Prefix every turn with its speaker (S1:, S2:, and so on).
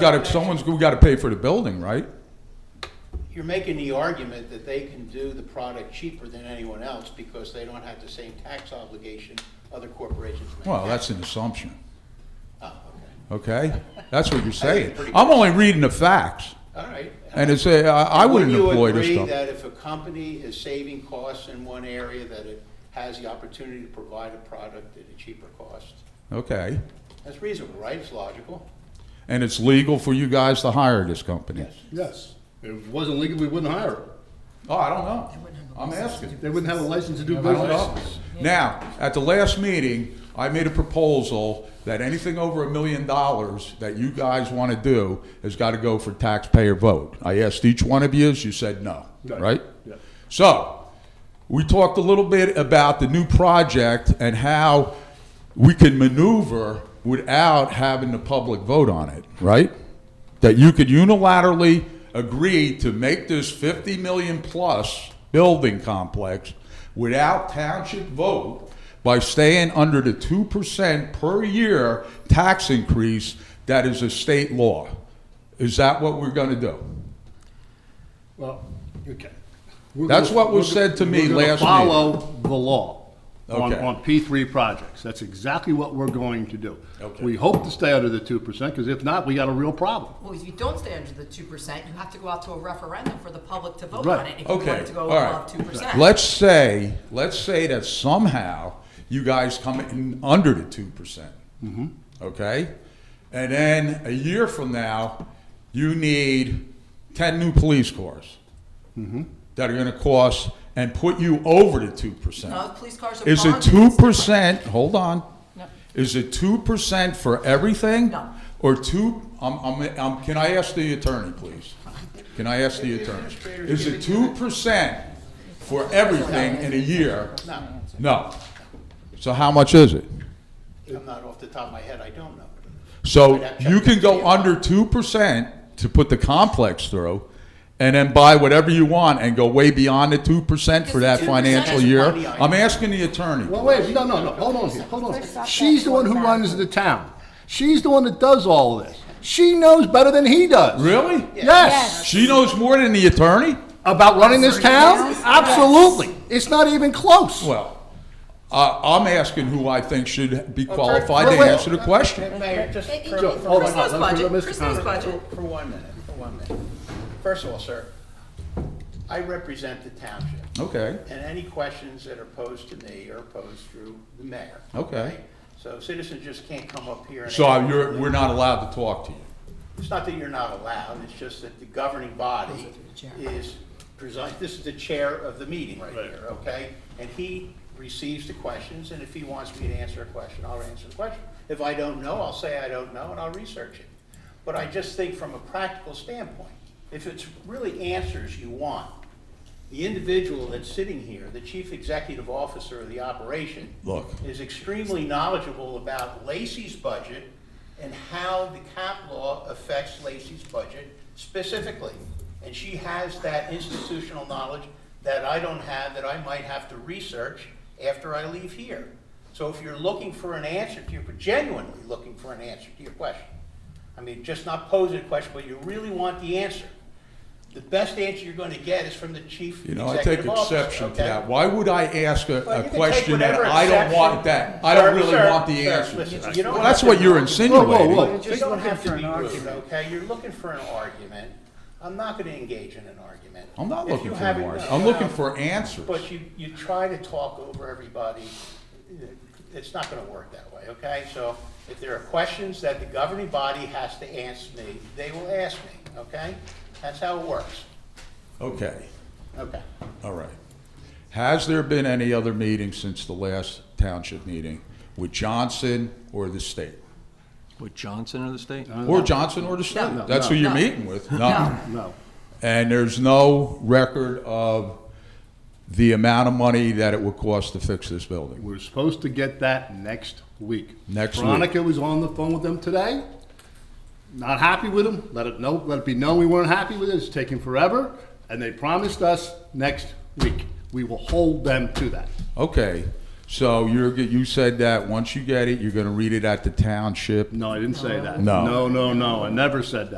S1: Got to, someone's, we got to pay for the building, right?
S2: You're making the argument that they can do the product cheaper than anyone else because they don't have the same tax obligation other corporations may.
S1: Well, that's an assumption,
S2: Oh, okay.
S1: okay? That's what you're saying.
S2: pretty good.
S1: I'm only reading the facts,
S2: All right.
S1: and it's, a- I I wouldn't employ this
S2: you agree
S1: stuff.
S2: that if a company is saving costs in one area, that it has the opportunity to provide a product at a cheaper cost?
S1: Okay,
S2: That's reasonable, right? It's logical.
S1: and it's legal for you guys to hire this company?
S2: Yes.
S3: Yes. If it wasn't legal, we wouldn't hire them.
S1: Oh, I don't know. I'm asking.
S3: They wouldn't have a license to do
S1: I don't know.
S3: business.
S1: Now, at the last meeting, I made a proposal that anything over a million dollars that you guys want to do has got to go for taxpayer vote. I asked each one of you, you said no,
S3: Right.
S1: right?
S3: Yeah.
S1: So, we talked a little bit about the new project and how we can maneuver without having the public vote on it, right? That you could unilaterally agree to make this 50 million plus building complex without township vote by staying under the 2% per year tax increase that is a state law. Is that what we're going to do?
S3: Well, okay. We're
S1: That's
S3: gonna-
S1: what was
S3: we're gonna-
S1: said to me
S3: we're gonna
S1: last
S3: Follow the law on,
S1: Okay.
S3: on P three projects. That's exactly what we're going to do.
S1: Okay.
S3: We hope to stay under the two percent, because if not, we got a real problem.
S4: Well, if you don't stay under the two percent, you have to go out to a referendum for the public to vote
S3: Right.
S4: on it if you want
S1: Okay,
S4: it to go
S1: all right.
S4: above two percent.
S1: Let's say, let's say that somehow you guys come in under the two percent. Okay? And then a year from now, you need ten new police cars that are gonna cost and put you over the two percent.
S4: No, police cars are
S1: Is it
S4: bonded.
S1: two percent, hold on.
S4: No.
S1: Is it two percent for everything?
S4: No.
S1: Or two, I'm, I'm, I'm, can I ask the attorney, please? Can I ask the attorney? Is it two percent for everything in a year?
S2: No,
S1: No. So how much is it?
S2: I'm not off the top of my head. I don't know.
S1: So you can go under two percent to put the complex through, and then buy whatever you want and go way beyond the two percent for that
S4: Because the 2%
S1: financial
S4: is
S1: year?
S2: money I-
S1: I'm asking the attorney.
S3: Well, wait, no, no, no, hold on here, hold on. She's the one who runs the town. She's the one that does all this. She knows better than he does.
S1: Really?
S3: Yes.
S1: She knows more than the attorney?
S3: About running this town? Absolutely. It's not even close.
S1: Well, I I'm asking who I think should be qualified
S3: wait,
S1: to
S3: wait.
S1: answer the question.
S2: Mayor, just
S4: It- it-
S2: for-
S3: Joe,
S4: it's
S3: hold on,
S4: Chris
S3: let
S4: knows
S3: me- let
S4: budget.
S3: Mr.
S4: Chris knows
S3: Conrad-
S4: budget.
S2: For one minute, for one minute. First of all, sir, I represent the township.
S1: Okay,
S2: And any questions that are posed to me are posed through the mayor.
S1: Okay.
S2: So citizens just can't come up here and.
S1: so you're, we're not allowed to talk to you.
S2: It's not that you're not allowed, it's just that the governing body
S4: Those are the chair.
S2: is, presi- this is the chair of the meeting right here, okay? And he receives the questions, and if he wants me to answer a question, I'll answer the question. If I don't know, I'll say I don't know, and I'll research it. But I just think from a practical standpoint, if it's really answers you want, the individual that's sitting here, the chief executive officer of the operation.
S1: Look.
S2: Is extremely knowledgeable about Lacey's budget and how the cap law affects Lacey's budget specifically. And she has that institutional knowledge that I don't have, that I might have to research after I leave here. So if you're looking for an answer to your, genuinely looking for an answer to your question, I mean, just not posing a question, but you really want the answer, the best answer you're gonna get is from the chief
S1: You know, I take
S2: executive officer,
S1: exception to
S2: okay?
S1: that. Why would I ask a,
S2: Well, you
S1: a
S2: can take
S1: question that
S2: whatever
S1: I don't want
S2: exception-
S1: that, I don't
S2: Sir,
S1: really
S2: sir,
S1: want the
S2: sir,
S1: answer?
S2: listen, you don't
S1: Well, that's
S2: have to
S1: what you're
S2: be-
S1: insinuating.
S3: whoa.
S2: You
S5: Just
S2: don't
S5: looking
S2: have to
S5: for
S2: be
S5: an
S2: rude,
S5: argument.
S2: okay? You're looking for an argument. I'm not gonna engage in an argument.
S1: I'm not
S2: If you
S1: looking for
S2: haven't-
S1: more,
S2: no,
S1: I'm
S2: no,
S1: looking
S2: no.
S1: for answers.
S2: But you, you try to talk over everybody, uh, it's not gonna work that way, okay? So if there are questions that the governing body has to answer me, they will ask me, okay? That's how it works,
S1: Okay,
S2: okay?
S1: all right. Has there been any other meeting since the last township meeting with Johnson or the state?
S5: With Johnson or the state?
S1: Or Johnson or the state?
S4: Uh, No,
S1: That's who
S4: no,
S1: you're
S4: no.
S1: meeting with?
S4: No.
S3: No.
S1: And there's no record of the amount of money that it would cost to fix this building.
S3: We're supposed to get that next week.
S1: Next week.
S3: Veronica was on the phone with them today. Not happy with them. Let it know. Let it be known we weren't happy with it. It's taking forever, and they promised us next week. We will hold them to that.
S1: Okay, So you're, g- you said that once you get it, you're going to read it at the township.
S3: No, I didn't say that.
S1: No.
S3: No, no, no, I never said that.